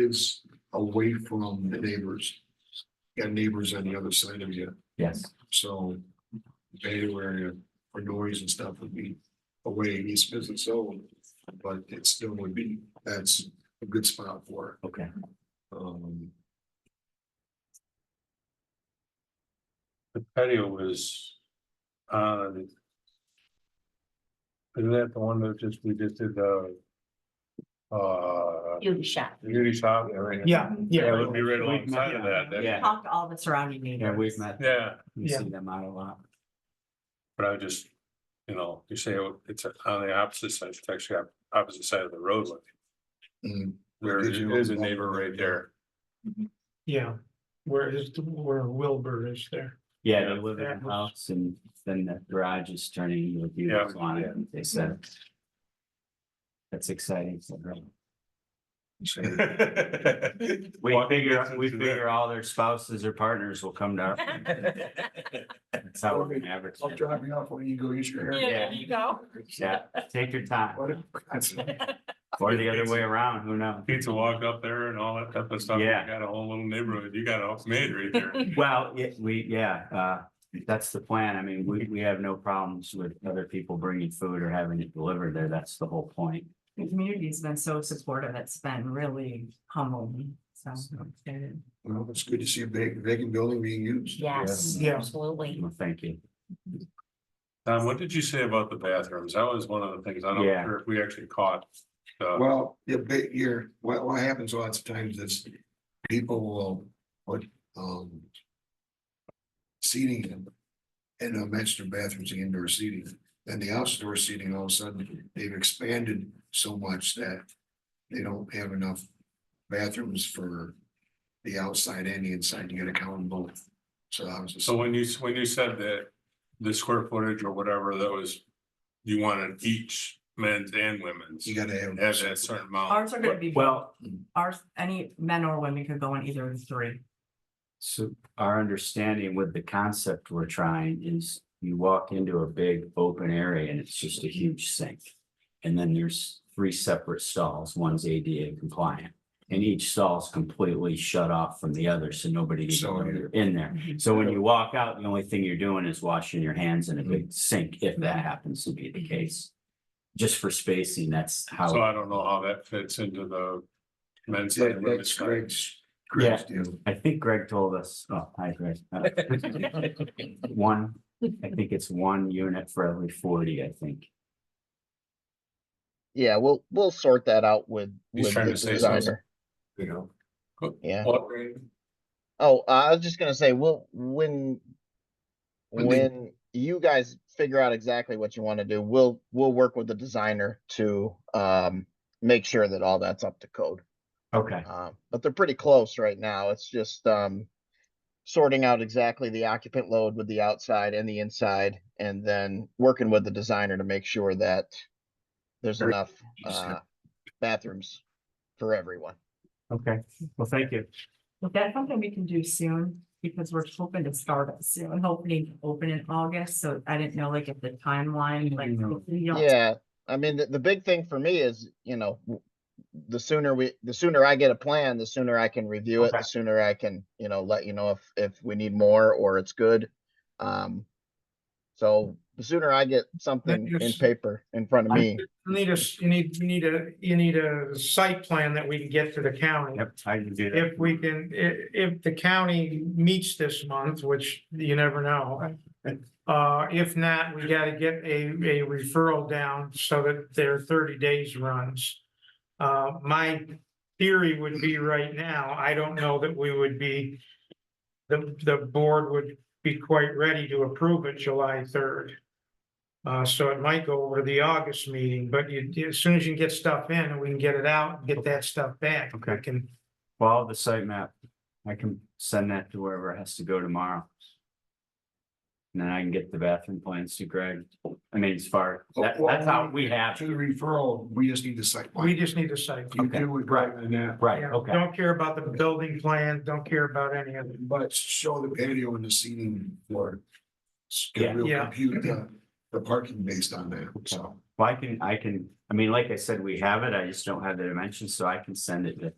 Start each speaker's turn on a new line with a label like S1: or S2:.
S1: is away from the neighbors. You Got neighbors on the other side of you,
S2: Yes,
S1: so bay area for noise and stuff would be away in East Business Zone. But it still would be, that's a good spot for
S2: okay.
S1: it. Um,
S3: The patio was on. Isn't that the one that just, we just did the? Uh,
S4: beauty shop.
S3: beauty shop?
S5: Yeah, yeah.
S3: Yeah, it would be right alongside of that. that-
S2: Yeah,
S4: Talk to all the surrounding
S2: yeah,
S4: neighbors.
S2: we've met, them.
S3: Yeah,
S2: we
S5: Yeah.
S2: see them out a lot.
S3: but I just, you know, you say oh, it's on the opposite side, it's actually op- opposite side of the roadway.
S1: mm,
S3: There is a neighbor right there.
S5: Yeah, where is, where Wilbur is there.
S2: Yeah,
S3: Yeah.
S2: they live in
S5: Yeah.
S2: a house and then the garage is turning into a beauty
S3: Yeah.
S2: salon, they said. That's exciting. for them. We
S3: Walk
S2: figure, we
S3: into that.
S2: figure all their spouses or partners will come down. That's how we average.
S1: I'll drop you off when you go use your hair.
S2: Yeah, there
S4: you go.
S2: Yeah, take your time,
S1: What a- that's-
S2: or the other way around, who knows?
S3: Pizza walk up there and all that type of stuff. You
S2: Yeah.
S3: Got a whole little neighborhood. You got all made right there.
S2: Well, yeah, we, yeah, uh, that's the plan. I mean, we, we have no problems with other people bringing food or having it delivered there. That's the whole point.
S4: The community's been so supportive. It's been really humbling, so.
S1: Well, it's good to see a big vacant building being used.
S4: Yes,
S5: Yeah.
S4: absolutely.
S2: Well, thank you.
S3: Tom, what did you say about the bathrooms? That was one of the things, I don't
S2: Yeah.
S3: know if we actually caught. uh,
S1: Well, yeah, but you're, what, what happens lots of times is people will, put um. Seating in, in a master bathrooms, the indoor seating, and the outdoor seating, all of a sudden, they've expanded so much that. They don't have enough bathrooms for the outside and the inside, you gotta count them both. So I was just,
S3: So when you, when you said that the square footage or whatever that was, you wanted each men's and women's,
S1: you gotta have.
S3: has that certain amount.
S4: Ours are gonna be,
S2: Well,
S4: ours, any men or women could go in either of the three.
S2: so our understanding with the concept we're trying is you walk into a big open area and it's just a huge sink. And then there's three separate stalls. One's ADA compliant. And each stall's completely shut off from the other, so nobody even
S1: So,
S2: knows
S1: yeah.
S2: you're in there. So Mm-hmm. when you walk out, the only thing you're doing is washing your hands in a big sink, if that happens to be the case. Just for spacing, that's
S3: So
S2: how,
S3: I don't know how that fits into the men's
S1: Yeah,
S3: and women's.
S1: That's
S3: side.
S1: Greg's, Greg's deal.
S2: I think Greg told us, oh, hi Greg. Uh, One, I think it's one unit for every forty, I think.
S6: Yeah, we'll we'll sort that out with
S3: He's
S6: with
S3: trying
S6: the
S3: to say something.
S6: designer.
S1: you know.
S6: Yeah.
S3: Well,
S6: Oh, I was just gonna say, we'll when
S1: When they-
S6: when you guys figure out exactly what you want to do, we'll we'll work with the designer to um make sure that all that's up to code.
S2: Okay,
S6: Um, but they're pretty close right now. It's just um sorting out exactly the occupant load with the outside and the inside, and then working with the designer to make sure that there's
S1: Very
S6: enough uh bathrooms for everyone.
S2: okay. Well, thank you.
S4: But that's something we can do soon, because we're hoping to start it soon, hoping to open in August, so I didn't know like if the timeline, like. if
S2: Mm-hmm.
S4: we don't-
S6: Yeah, I mean, the, the big thing for me is, you know, w- the sooner we, the sooner I get a plan, the sooner I can review it, the
S2: Okay.
S6: sooner I can, you know, let you know if, if we need more or it's good. Um, so the sooner I get something in
S5: yes.
S6: paper in front of
S2: I-
S6: me,
S5: You Need a, s- you need, you need a, you need a site plan that we can get to the county.
S2: Yep, I can do that.
S5: If we can, i- if the county meets this month, which you never know. Uh, if not, we gotta get a, a referral down so that their thirty days runs. Uh, my theory would be right now, I don't know that we would be. The, the board would be quite ready to approve it July third. Uh, so it might go over to the August meeting, but you, as soon as you can get stuff in and we can get it out, and get that stuff back.
S2: Okay.
S5: We Can
S2: Follow the site map. I can send that to wherever it has to go tomorrow. And then I can get the bathroom plans to Greg. I mean, as far, that, that's how we have,
S1: To the referral, we just need the site. plan.
S5: We just need a site.
S1: You
S2: Okay.
S1: do with right and that,
S2: right,
S5: Yeah,
S2: okay.
S5: Don't care about the building plan, don't care about any of it.
S1: but show the patio and the seating floor.
S2: Yeah.
S1: We'll
S5: Yeah.
S1: compute the, the parking based on that, so.
S2: Well, I can, I can, I mean, like I said, we have it, I just don't have the dimensions, so I can send it to